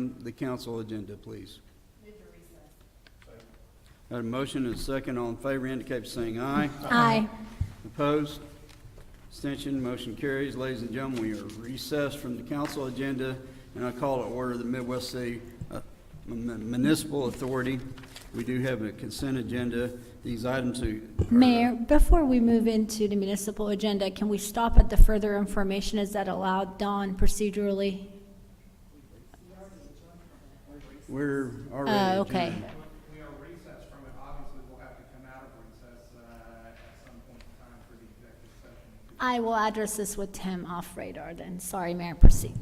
item, the council agenda, please. Got a motion and a second. All in favor indicate by saying aye. Aye. Opposed? Abstention, motion carries. Ladies and gentlemen, we are recessed from the council agenda, and I call to order the Midwest City uh, M- Municipal Authority. We do have a consent agenda. These items are... Mayor, before we move into the municipal agenda, can we stop at the further information? Is that allowed, Don, procedurally? We're already... Oh, okay. adjourned. We are recessed from it, obviously we'll have to come out of recess uh, at some point in time for the executive session. I will address this with Tim off radar then. Sorry, Mayor, proceed.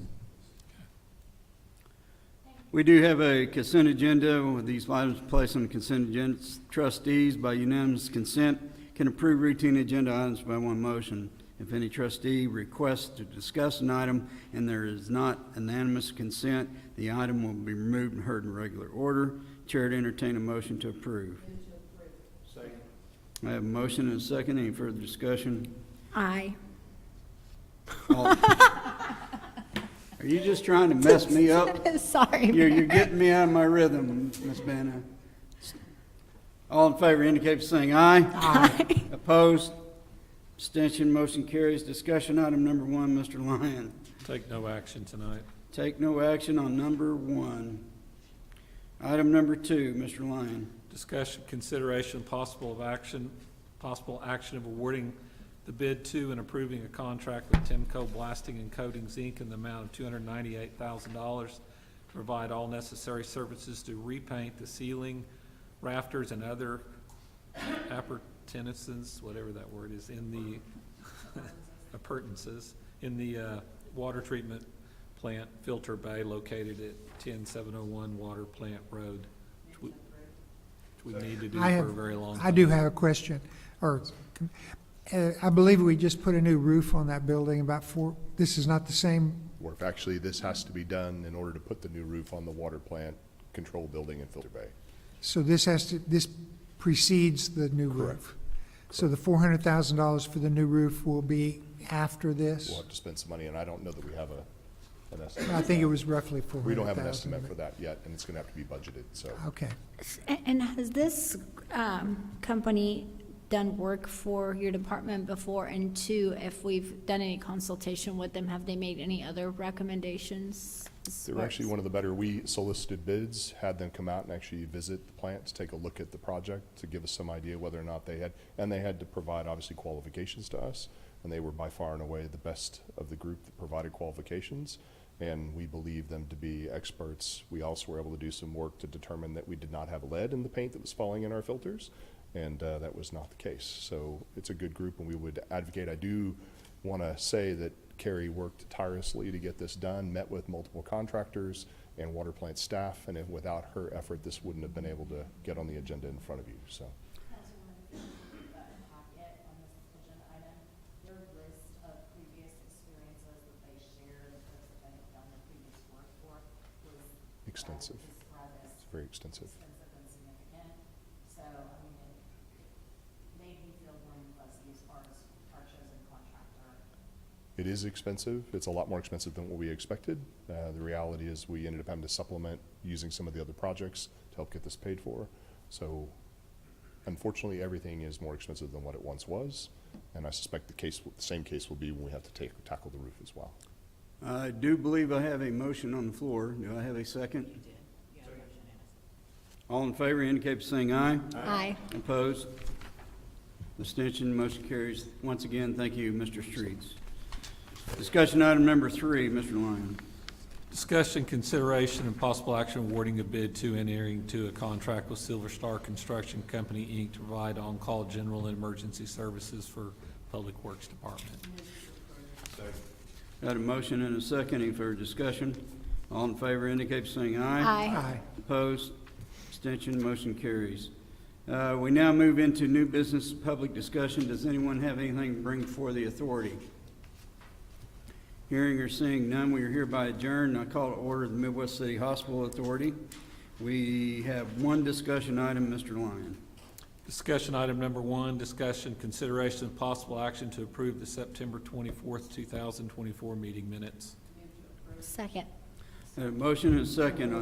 We do have a consent agenda with these items placed on the consent agenda. Trustees by unanimous consent can approve routine agenda items by one motion. If any trustee requests to discuss an item and there is not unanimous consent, the item will be removed and heard in regular order. Chair to entertain a motion to approve. Second. I have a motion and a second. Any further discussion? Aye. All- Are you just trying to mess me up? Sorry, You're, Mayor. you're getting me out of my rhythm, Ms. Banner. All in favor indicate by saying aye. Aye. Opposed? Abstention, motion carries. Discussion item number one, Mr. Lyon. Take no action tonight. Take no action on number one. Item number two, Mr. Lyon. Discussion, consideration, possible of action, possible action of awarding the bid to and approving a contract with Timco Blasting and Coatings, Inc. in the amount of two hundred ninety-eight thousand dollars to provide all necessary services to repaint the ceiling, rafters, and other appurtenances, whatever that word is, in the, appurtenances, in the uh, water treatment plant filter bay located at ten seven oh one Water Plant Road, which we- which we need to do for I a have- very long time. I do have a question, or, uh, I believe we just put a new roof on that building about four, this is not the same, Or if actually this has to be done in order to put the new roof on the water plant control building in Filter Bay. so this has to, this precedes the new roof. So the four hundred thousand dollars for the new roof will be after this? We'll have to spend some money, and I don't know that we have a, an estimate. I think it was roughly four We hundred thousand. don't have an estimate for that yet, and it's gonna have to be budgeted, so. Okay, A- And has this um, company done work for your department before? And two, if we've done any consultation with them, have they made any other recommendations? They were actually one of the better, we solicited bids, had them come out and actually visit the plant, to take a look at the project, to give us some idea whether or not they had, and they had to provide obviously qualifications to us, and they were by far and away the best of the group that provided qualifications, and we believe them to be experts. We also were able to do some work to determine that we did not have lead in the paint that was falling in our filters, and uh, that was not the case. So it's a good group, and we would advocate, I do want to say that Kerry worked tirelessly to get this done, met with multiple contractors and water plant staff, and if, without her effort, this wouldn't have been able to get on the agenda in front of you, so. packet on this agenda item, their list of previous experiences that they shared, and folks that they had done their previous work for, was. uh, Extensive. Described as It's very extensive. extensive and significant, so, I mean, it made me feel warm and fuzzy as far as our chosen contractor. It is expensive. It's a lot more expensive than what we expected. Uh, the reality is we ended up having to supplement using some of the other projects to help get this paid for. So unfortunately, everything is more expensive than what it once was. And I suspect the case, the same case will be when we have to take, tackle the roof as well. I do believe I have a motion on the floor. Do I have a second? All in favor indicate by saying aye. Aye. Opposed? Abstention, motion carries. Once again, thank you, Mr. Streets. Discussion item number three, Mr. Lyon. Discussion, consideration, and possible action awarding a bid to and entering to a contract with Silver Star Construction Company, Inc. to provide on-call general and emergency services for Public Works Department. Got a motion and a second. Any further discussion? All in favor indicate by saying aye. Aye. aye. Opposed? Abstention, motion carries. Uh, We now move into new business public discussion. Does anyone have anything to bring before the authority? Hearing or seeing none, we are hereby adjourned. I call to order the Midwest City Hospital Authority. We have one discussion item, Mr. Lyon. Discussion item number one, discussion, consideration, and possible action to approve the September twenty-fourth, two thousand twenty-four meeting minutes. Second. A motion and a second.